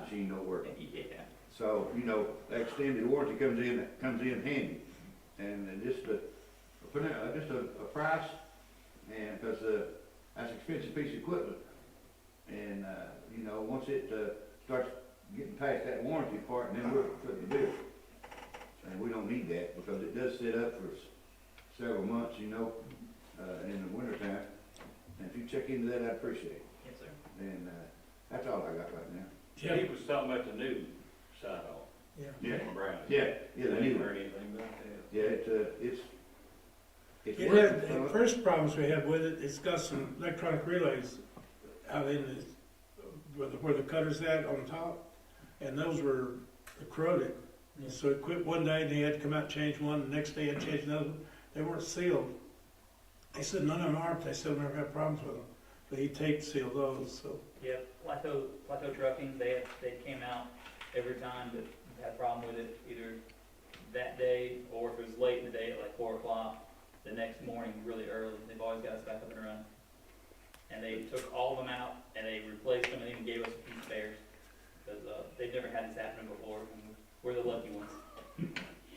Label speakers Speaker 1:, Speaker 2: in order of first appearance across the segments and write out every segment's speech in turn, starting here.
Speaker 1: machine don't work.
Speaker 2: Yeah.
Speaker 1: So, you know, that extended warranty comes in, comes in handy. And and just a, a put in- uh, just a, a price, and, because, uh, that's an expensive piece of equipment. And, uh, you know, once it, uh, starts getting past that warranty part, then we're putting the bill. And we don't need that, because it does sit up for s- several months, you know, uh, in the wintertime. And if you check into that, I'd appreciate it.
Speaker 2: Yes, sir.
Speaker 1: And, uh, that's all I got right now.
Speaker 3: He was talking about the new sidewalk.
Speaker 4: Yeah.
Speaker 1: Yeah.
Speaker 3: Brown.
Speaker 1: Yeah, yeah, the new one.
Speaker 3: Heard anything about that?
Speaker 1: Yeah, it's, uh, it's, it's
Speaker 4: It had,
Speaker 1: working.
Speaker 4: the
Speaker 1: son.
Speaker 4: first problems we had with it, it's got some electronic relays out in the, where the, where the cutter's at on top, and those were corroded. And so it quit one day, and they had to come out and change one, the next day had to change another, one. they weren't sealed. They said none of them are, but they still never had problems with them, but he taped sealed those, so.
Speaker 2: Yep, Plateau, Plateau Trucking, they, they came out every time that had a problem with it, either that day, or if it was late in the day at like four o'clock, the next morning, really early, they've always got us back up and running. And they took all of them out, and they replaced them, and even gave us a few spares, because, uh, they've never had this happen before, and we're the lucky ones.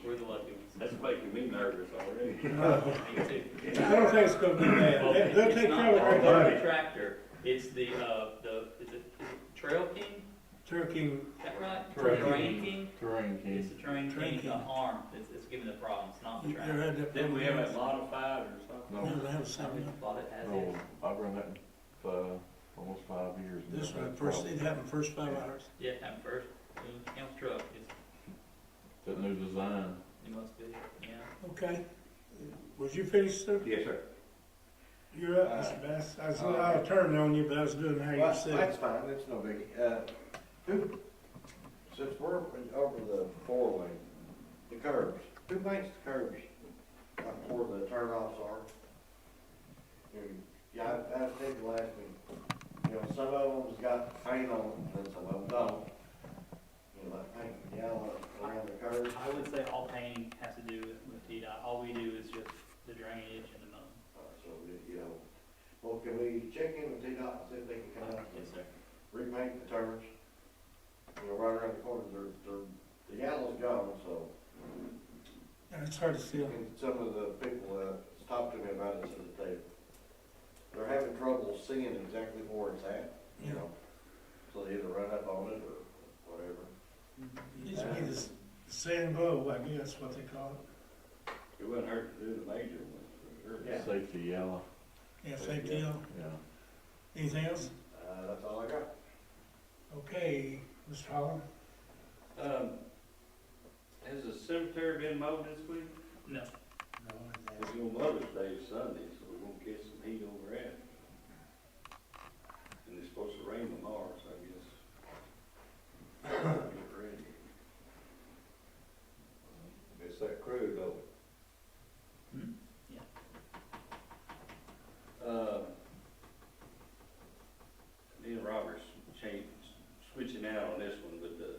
Speaker 2: We're the lucky ones.
Speaker 3: That's making me nervous already.
Speaker 4: I
Speaker 2: Me too.
Speaker 4: don't think it's gonna be
Speaker 2: Well,
Speaker 4: bad, They- they'll
Speaker 2: It's
Speaker 4: take
Speaker 2: not
Speaker 4: care
Speaker 2: the
Speaker 4: of it right
Speaker 2: Harley
Speaker 4: now.
Speaker 2: tractor, it's the, uh, the, is it is it Trail King,
Speaker 4: Turkey,
Speaker 2: is that right?
Speaker 4: Terrain King.
Speaker 2: Terrain King?
Speaker 5: Terrain
Speaker 2: It's the terrain
Speaker 4: Terrain
Speaker 2: king, the
Speaker 4: King.
Speaker 2: arm, that's, that's giving the problems, not the
Speaker 4: you
Speaker 2: tractor.
Speaker 4: ever had that?
Speaker 3: Didn't we have it
Speaker 4: problem?
Speaker 3: modified or something?
Speaker 5: No,
Speaker 4: No, they have
Speaker 2: I
Speaker 4: something.
Speaker 2: would thought it as
Speaker 5: no,
Speaker 2: is.
Speaker 5: I've run that for almost five years. and
Speaker 4: This
Speaker 5: never
Speaker 4: one,
Speaker 5: had a
Speaker 4: first,
Speaker 5: problem.
Speaker 4: it happened first five hours.
Speaker 2: Yeah, at first, it counts truck, it's,
Speaker 5: That new design,
Speaker 2: it must be, yeah.
Speaker 4: Okay. Was you finished, sir?
Speaker 1: Yes, sir.
Speaker 4: You're up,
Speaker 6: Uh,
Speaker 4: Mr. Bass. I was,
Speaker 6: oh,
Speaker 4: I was turning on you, but I was doing how you
Speaker 6: Well,
Speaker 4: said.
Speaker 6: that's fine, that's no biggie. Uh, who, since we're over the four lane, the curbs, who makes the curbs uh, where the turnoffs are? And, Yeah, I, I think last week, you know, some of them's got paint on, them, and some of them don't. You know, like paint, yellow around the curbs.
Speaker 2: I would say all painting has to do with, with DDOT, all we do is just the drainage and the mowing.
Speaker 6: Uh, So, you know, well, can we check in with T-Dot and see if they can come out? and-
Speaker 2: Yes, sir.
Speaker 6: repaint the turns. You know, right around the corner, they're, they're, the yellow's gone, so.
Speaker 4: Yeah, It's hard to see.
Speaker 6: And some of the people, uh, talked to me about it, said that they, they're having trouble seeing exactly where it's at, you know? So they either run up on it or whatever.
Speaker 4: Needs to be the s- sand glow, I guess that's what they call
Speaker 3: It wouldn't hurt to do the major ones for sure.
Speaker 6: Yeah.
Speaker 5: safety yellow,
Speaker 4: it. Yeah, safety deal.
Speaker 5: yeah.
Speaker 4: Anything else?
Speaker 6: Uh, that's all I got.
Speaker 4: Okay, Mr. Holland.
Speaker 3: Um, has the cemetery been mowed this week?
Speaker 2: No,
Speaker 3: It's your Mother's Day is Sunday, so we're gonna get some heat over it. And it's supposed to rain tomorrow, so I guess. Get ready.
Speaker 1: It's that crew though.
Speaker 3: Uh, me and Robert's changed, switching out on this one, but the,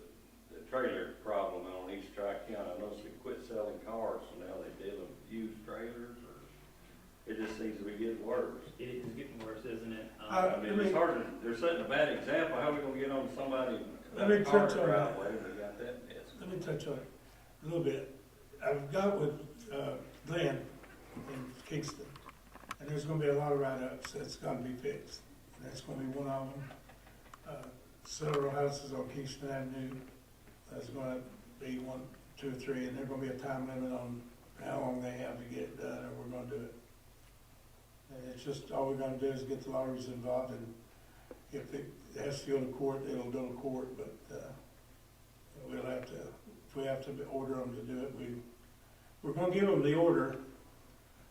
Speaker 3: the trailer problem on East Tri-County, I noticed they quit selling cars, so now they deal with used trailers, or it just seems to be getting worse.
Speaker 2: it is getting worse, isn't it? Um,
Speaker 4: Uh,
Speaker 3: I mean, it's hard to, they're setting a bad example, how we gonna get on somebody,
Speaker 4: Let me
Speaker 3: a car
Speaker 4: touch on that.
Speaker 3: driveway, we got that mess.
Speaker 4: Let me touch on it a little bit. I've got with uh, Glenn in Kingston, and there's gonna be a lot of write-ups that's gonna be fixed. And That's gonna be one of them. Uh, Several houses on Kingston Avenue, there's gonna be one, two, or three, and there's gonna be a time limit on how long they have to get it done, or we're gonna do it. And it's just, all we're gonna do is get the lawyers involved, and if it has to go to court, it'll go to court, but, uh, We'll have to, if we have to order them to do it, we, we're gonna give them the order.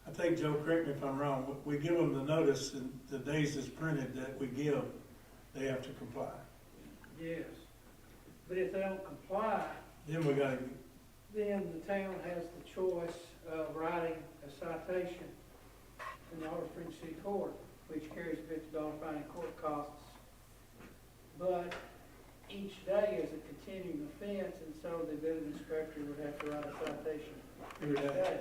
Speaker 4: I think, Joe, correct me if I'm wrong, but we give them the notice and the days is printed that we give, they have to comply.
Speaker 7: Yes, but if they don't comply,
Speaker 4: Then we gotta,
Speaker 7: then the town has the choice of writing a citation in the Otter Springs City Court, which carries a fifty dollar fine and court costs. But each day is a continuing offense, and so the building inspector would have to write a citation
Speaker 4: figure
Speaker 7: each
Speaker 4: it out.
Speaker 7: day.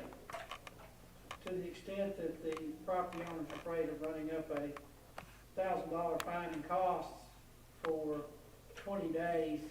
Speaker 7: To the extent that the property owner's afraid of running up a thousand dollar fine and costs for twenty days,